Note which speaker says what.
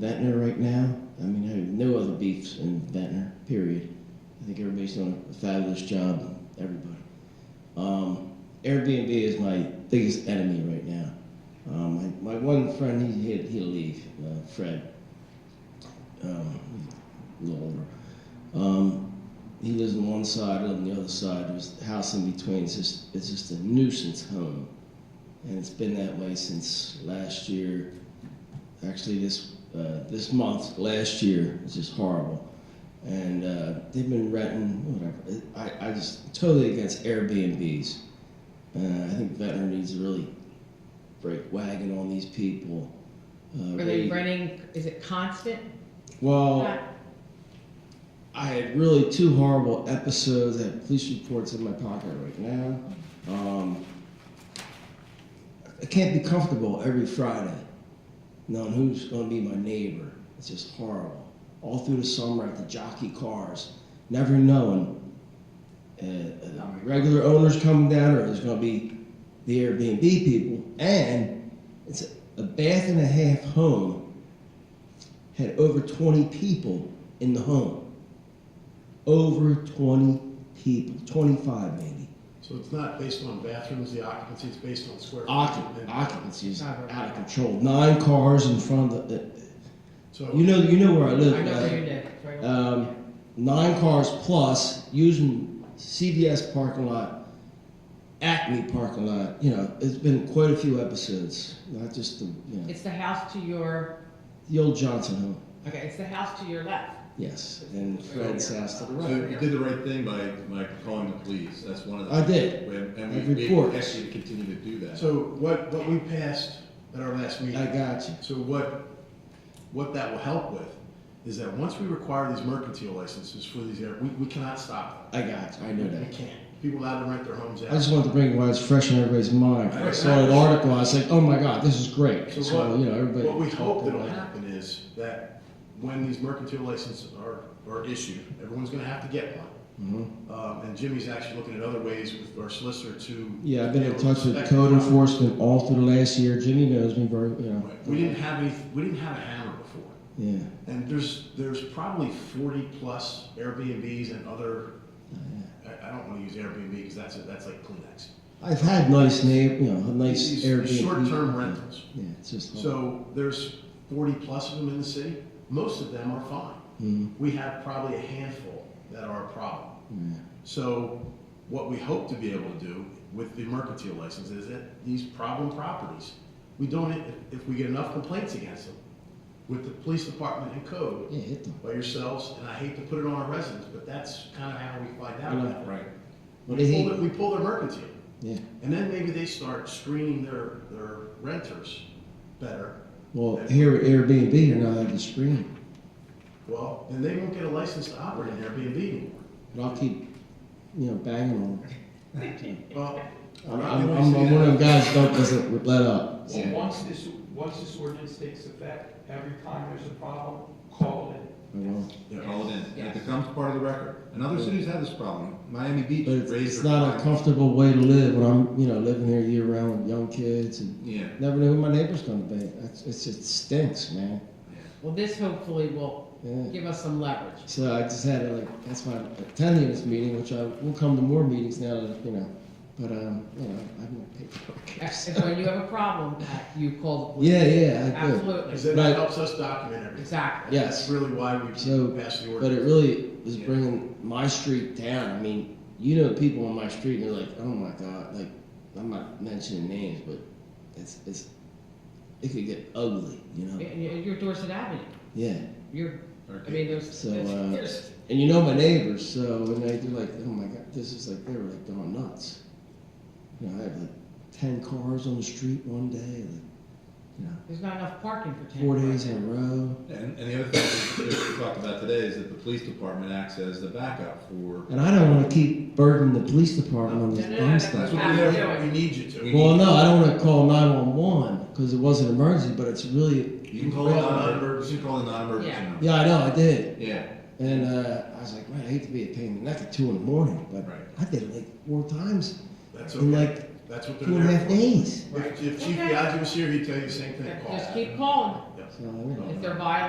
Speaker 1: Ventnor right now, I mean, I have no other beefs in Ventnor, period. I think everybody's doing a fabulous job, everybody. Um, Airbnb is my biggest enemy right now. Um, my, my one friend, he, he'll, he'll leave, uh, Fred. Um, he's a little older. Um, he lives on one side, I live on the other side. There's a house in between. It's just, it's just a nuisance home. And it's been that way since last year. Actually, this, uh, this month, last year, it's just horrible. And uh, they've been renting, whatever. I, I just totally against Airbnbs. Uh, I think veteran needs to really break wagon on these people. Uh,
Speaker 2: Are they running, is it constant?
Speaker 1: Well,
Speaker 2: Not-
Speaker 1: I had really two horrible episodes. I have police reports in my pocket right now. Um, I can't be comfortable every Friday knowing who's going to be my neighbor. It's just horrible. All through the summer at the jockey cars, never knowing uh, uh, regular owners coming down or there's going to be the Airbnb people. And it's a, a bath and a half home had over 20 people in the home over 20 people, 25 maybe.
Speaker 3: So it's not based on bathrooms, the occupancy is based on square.
Speaker 1: Occup-
Speaker 3: footage.
Speaker 1: occupancy is out of control. Nine cars in front of the. uh,
Speaker 3: So,
Speaker 1: You know, you know where I
Speaker 2: I
Speaker 1: live.
Speaker 2: know
Speaker 1: right?
Speaker 2: where you live, right?
Speaker 1: Um, nine cars plus using CVS parking lot, Acme parking lot. You know, it's been quite a few episodes. Not just the you know,
Speaker 2: It's the house to your,
Speaker 1: the old Johnson home.
Speaker 2: okay, it's the house to your left.
Speaker 1: Yes, and Fred's house to the
Speaker 4: So
Speaker 1: right.
Speaker 4: you did the right thing by, by calling the police, that's one of the.
Speaker 1: I did.
Speaker 4: And
Speaker 1: I
Speaker 4: and we,
Speaker 1: report.
Speaker 4: we asked you to continue to do that.
Speaker 3: so what, what we passed at our last
Speaker 1: I
Speaker 3: meeting,
Speaker 1: got you.
Speaker 3: so what, what that will help with is that once we require these mercantile licenses for these, air- we, we cannot stop
Speaker 1: I got you. I know
Speaker 3: them.
Speaker 1: that.
Speaker 3: We can't. People allowed to rent their homes
Speaker 1: I just
Speaker 3: out.
Speaker 1: wanted to bring it while it's fresh in everybody's mind. I saw an article, I was like, oh my god, this is great.
Speaker 3: So
Speaker 1: So,
Speaker 3: what-
Speaker 1: you know, everybody.
Speaker 3: What we hope that'll happen is that when these mercantile licenses are, are issued, everyone's gonna have to get one.
Speaker 1: Mhm.
Speaker 3: Um, and Jimmy's actually looking at other ways with our solicitor to.
Speaker 1: Yeah, I've been in touch with
Speaker 3: Inspect-
Speaker 1: code enforcement all through the last year. Jimmy knows me very, you know.
Speaker 3: We didn't have any, we didn't have a hammer before.
Speaker 1: Yeah.
Speaker 3: And there's, there's probably forty plus Airbnbs and other, I, I don't wanna use Airbnb because that's, a- that's like Kleenex.
Speaker 1: I've had nice neighbor, you know, nice
Speaker 3: These-
Speaker 1: Airbnb. Oh.
Speaker 3: these Short-term rentals.
Speaker 1: Yeah, it's just.
Speaker 3: So there's forty plus of them in the city. Most of them are fine.
Speaker 1: Mhm.
Speaker 3: We have probably a handful that are a problem.
Speaker 1: Yeah.
Speaker 3: So what we hope to be able to do with the mercantile license is that these problem properties, we don't, if- if we get enough complaints against them, with the police department and code,
Speaker 1: Yeah, hit them.
Speaker 3: by yourselves, and I hate to put it on our residents, but that's kind of how we find out.
Speaker 1: Right.
Speaker 3: about it.
Speaker 4: Right.
Speaker 1: What do
Speaker 3: We
Speaker 1: you
Speaker 3: pull,
Speaker 1: think?
Speaker 3: their- we pull their mercantile,
Speaker 1: Yeah.
Speaker 3: and then maybe they start screening their, their renters better.
Speaker 1: Well, here at Airbnb, you're not allowed to screen.
Speaker 3: Well, then they won't get a license to operate an Airbnb anymore.
Speaker 1: But I'll keep, you know, banging on them.
Speaker 3: Well,
Speaker 1: I'm,
Speaker 3: not
Speaker 1: I'm,
Speaker 3: gonna
Speaker 1: I'm
Speaker 3: say
Speaker 1: one of them
Speaker 3: that.
Speaker 1: guys that doesn't let up.
Speaker 5: Well, once this, once this ordinance takes effect, every time there's a problem, call it.
Speaker 1: I will.
Speaker 3: Yeah.
Speaker 4: Call it in,
Speaker 2: Yes.
Speaker 4: it becomes part of the record. And other cities have this problem, Miami Beach
Speaker 1: But it's,
Speaker 4: raised
Speaker 1: it's
Speaker 4: their.
Speaker 1: not a
Speaker 4: fine.
Speaker 1: comfortable way to live when I'm, you know, living here year round with young kids and
Speaker 4: Yeah,
Speaker 1: never know who my neighbor's gonna be. That's, it's, it stinks, man.
Speaker 2: Well, this hopefully will
Speaker 1: Yeah.
Speaker 2: give us some leverage.
Speaker 1: So I just had like, that's why I'm attending this meeting, which I will come to more meetings now that, you know, but, um, you know, I have no paperwork.
Speaker 2: If
Speaker 1: so-
Speaker 2: when you have a problem, uh, you call the police.
Speaker 1: Yeah, yeah, I do.
Speaker 2: Absolutely,
Speaker 3: Because then
Speaker 1: Right.
Speaker 3: it helps us document everything.
Speaker 2: exactly.
Speaker 3: That's
Speaker 1: Yes,
Speaker 3: really why we passed the
Speaker 1: So,
Speaker 3: ordinance.
Speaker 1: but it really is bringing my street down. I mean, you know, people on my street, and they're like, oh my God, like, I'm not mentioning names, but it's, it's, it could get ugly, you know?
Speaker 2: And you- You're Dorset Avenue,
Speaker 1: Yeah.
Speaker 2: you're, I
Speaker 4: okay.
Speaker 2: mean, there's,
Speaker 1: So,
Speaker 2: there's,
Speaker 1: uh,
Speaker 2: there's-
Speaker 1: And you know my neighbors, so when they do like, oh my god, this is like they were like going nuts. You know, I have like ten cars on the street one day, like you know,
Speaker 2: there's not enough parking for ten.
Speaker 1: four
Speaker 2: cars.
Speaker 1: days in a row.
Speaker 4: And, and the other thing that we talked about today is that the police department acts as the backup for.
Speaker 1: And I don't want to keep burdening the police department on this
Speaker 2: No, no,
Speaker 1: dumb
Speaker 2: no,
Speaker 3: That's
Speaker 1: stuff.
Speaker 3: what we have, we need you to.
Speaker 4: We
Speaker 1: Well, no, I don't want to call nine one one because it was an emergency, but it's really
Speaker 4: You can call it non-emergency, you can call it non-emergency
Speaker 2: Yeah.
Speaker 4: number.
Speaker 1: yeah, I know I did,
Speaker 4: Yeah,
Speaker 1: and uh, I was like, man, I hate to be a pain in the neck at two in the morning, but
Speaker 4: Right.
Speaker 1: I did it like four times
Speaker 3: That's
Speaker 1: in
Speaker 3: okay,
Speaker 1: like
Speaker 3: that's what
Speaker 1: two
Speaker 3: they're
Speaker 1: and a
Speaker 3: there
Speaker 1: half
Speaker 3: for.
Speaker 1: days.
Speaker 3: If, if Chief
Speaker 2: Okay.
Speaker 3: Biagi was here, he'd tell you the same thing,
Speaker 2: Just
Speaker 3: Paul.
Speaker 2: keep calling,
Speaker 1: So, you know.
Speaker 2: if they're violating